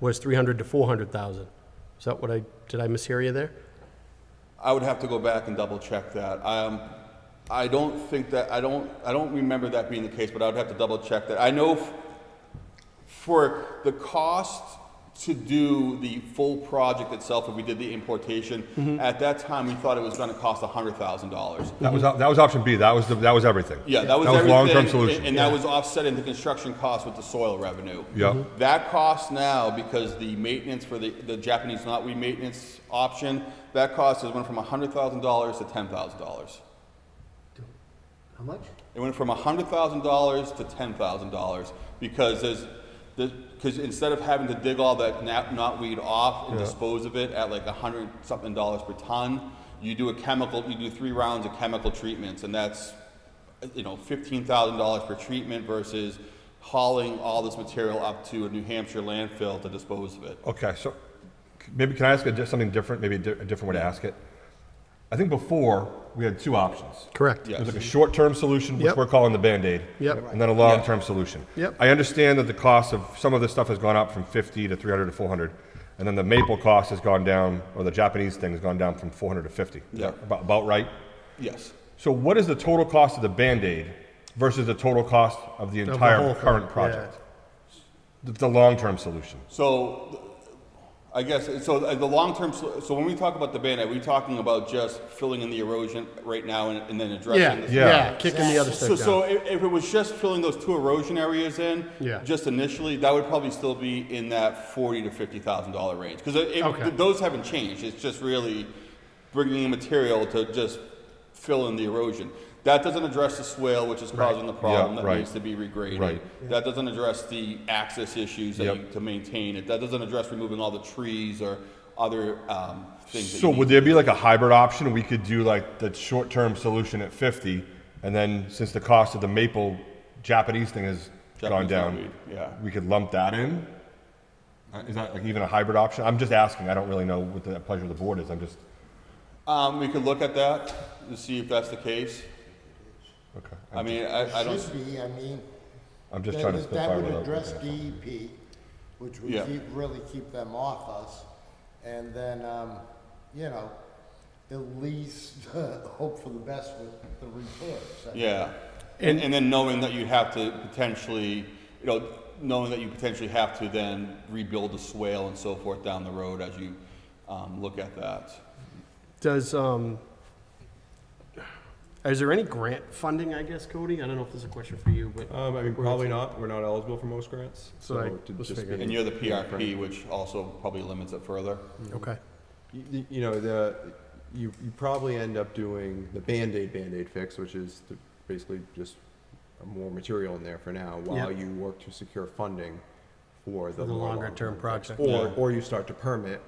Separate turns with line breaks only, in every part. was 300 to 400,000. Is that what I, did I mishear you there?
I would have to go back and double check that. Um, I don't think that, I don't, I don't remember that being the case, but I would have to double check that. I know f- for the cost to do the full project itself, if we did the importation, at that time, we thought it was gonna cost hundred thousand dollars.
That was, that was option B, that was, the- that was everything.
Yeah, that was
That was
everything.
long-term
and-
solution.
And that was offsetting the construction cost with the soil revenue. Mm-hmm.
Yeah. Mhm.
That cost now, because the maintenance for the, the Japanese knotweed maintenance option, that cost has went from hundred thousand dollars to ten thousand dollars.
How much?
It went from hundred thousand dollars to ten thousand dollars because there's, because instead of having to dig all that na- knotweed off and dispose of it at like a hundred something dollars per ton, you do a chemical, you do three rounds of chemical treatments, and that's, you know, fifteen thousand dollars per treatment versus hauling all this material up to a New Hampshire landfill to dispose of it.
Okay, so c- maybe, can I ask a di- something different, maybe a di- a different way to ask it? I think before, we had two options.
Correct.
There's like a
Yes.
short-term solution, which
Yep.
we're calling the Band-Aid.
Yep.
And then a long-term solution.
Yep.
I understand that the cost of, some of this stuff has gone up from 50 to 300 to 400. And then the maple cost has gone down, or the Japanese thing has gone down from 400 to 50. Is that
Yeah.
About, about right?
Yes.
So what is the total cost of the Band-Aid versus the total cost of the
the
entire
whole thing,
current
yeah.
project? The, the long-term solution.
So, th- I guess, so uh, the the long-term, so so when we talk about the ban, are we talking about just filling in the erosion right now and and then addressing?
Yeah,
this?
yeah, kicking the other
So,
stuff
so
down.
if, if it was just filling those two erosion areas in,
Yeah.
just initially, that would probably still be in that forty to fifty thousand dollar range, because
Okay.
those haven't changed, it's just really bringing in material to just fill in the erosion. That doesn't address the swale, which is causing the problem that
right.
needs to be regraded.
Right.
That doesn't address the access issues that you,
Yep.
to maintain it. That doesn't address removing all the trees or other um, things. that
So
you need
would there be like a hybrid option? We could do like the short-term solution at 50, and then since the cost of the maple Japanese thing has gone
Japanese
down,
knotweed, yeah.
we could lump that in? Uh, Is that like even a hybrid option? I'm just asking. I don't really know what the pleasure of the board is. I'm just,
Um, we could look at that and see if that's the case.
okay.
I mean, I, I don't.
Should be, I mean,
I'm just
that
trying to
would, that
spitfire
would
without.
address
looking at it.
DEP, which would
Yeah.
keep, really keep them off us. And then, um, you know, at least hope for the best with the repairs.
Yeah. And, and then knowing that you have to potentially, you know, knowing that you potentially have to then rebuild the swale and so forth down the road as you um, look at that.
Does, um, is there any grant funding, I guess, Cody? I don't know if this is a question for you,
Uh,
but,
Um, I mean, probably not. We're not eligible for most grants.
So, like,
it would
let's
just
figure
be-
And you're the PRP, which also probably limits it further.
okay.
You- you, you know, the, you, you probably end up doing the Band-Aid, Band-Aid fix, which is to basically just more material in there for now while
Yeah.
you work to secure funding for the.
The
more
longer term
long-term
project.
Or, or you start to permit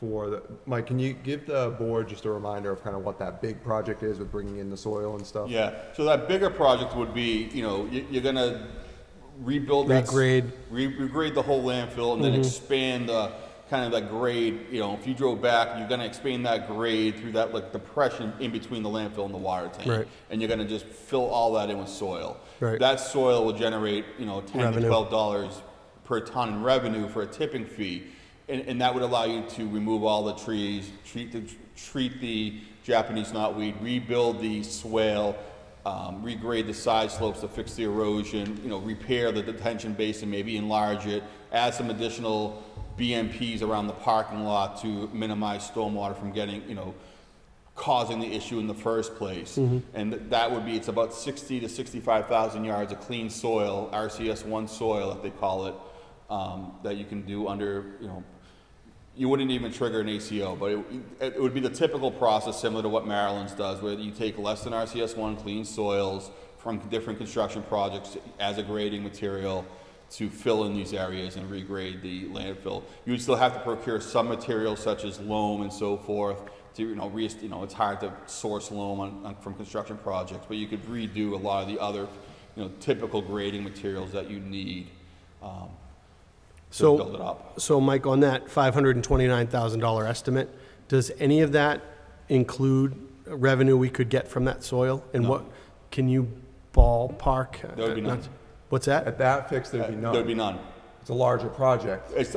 for the, Mike, can you give the board just a reminder of kind of what that big project is with bringing in the soil and stuff?
Yeah. So that bigger project would be, you know, you, you're gonna rebuild that. s-
Regrade. Mm-hmm.
Re- regrade the whole landfill and then expand the, kind of that grade, you know, if you drove back, you're gonna expand that grade through that, like, depression in between the landfill and the water tank.
Right.
And you're gonna just fill all that in with soil.
Right.
That soil will generate, you know, ten to
Revenue.
twelve dollars per ton in revenue for a tipping fee. And, and that would allow you to remove all the trees, treat the, treat the Japanese knotweed, rebuild the swale, um, regrade the side slopes to fix the erosion, you know, repair the detention basin, maybe enlarge it, add some additional BMPs around the parking lot to minimize stormwater from getting, you know, causing the issue in the first place. And th- that would be, it's about sixty to sixty-five thousand yards of clean soil, RCS one soil, if they call it, um, that you can do under, you know, you wouldn't even trigger an ACO, but it, it would be the typical process similar to what Maryland's does, where you take less than RCS one clean soils from different construction projects as a grading material to fill in these areas and regrade the landfill. You would still have to procure some materials such as loam and so forth to, you know, re, you know, it's hard to source loam on, on, from construction projects, but you could redo a lot of the other, you know, typical grading materials that you need, um, to build it
So,
up.
so Mike, on that five hundred and twenty-nine thousand dollar estimate, does any of that include revenue we could get from that soil? And what, can you ballpark? uh,
There would be none.
What's that?
At that fix, there'd be none.
There'd be none.
It's a larger project.
It's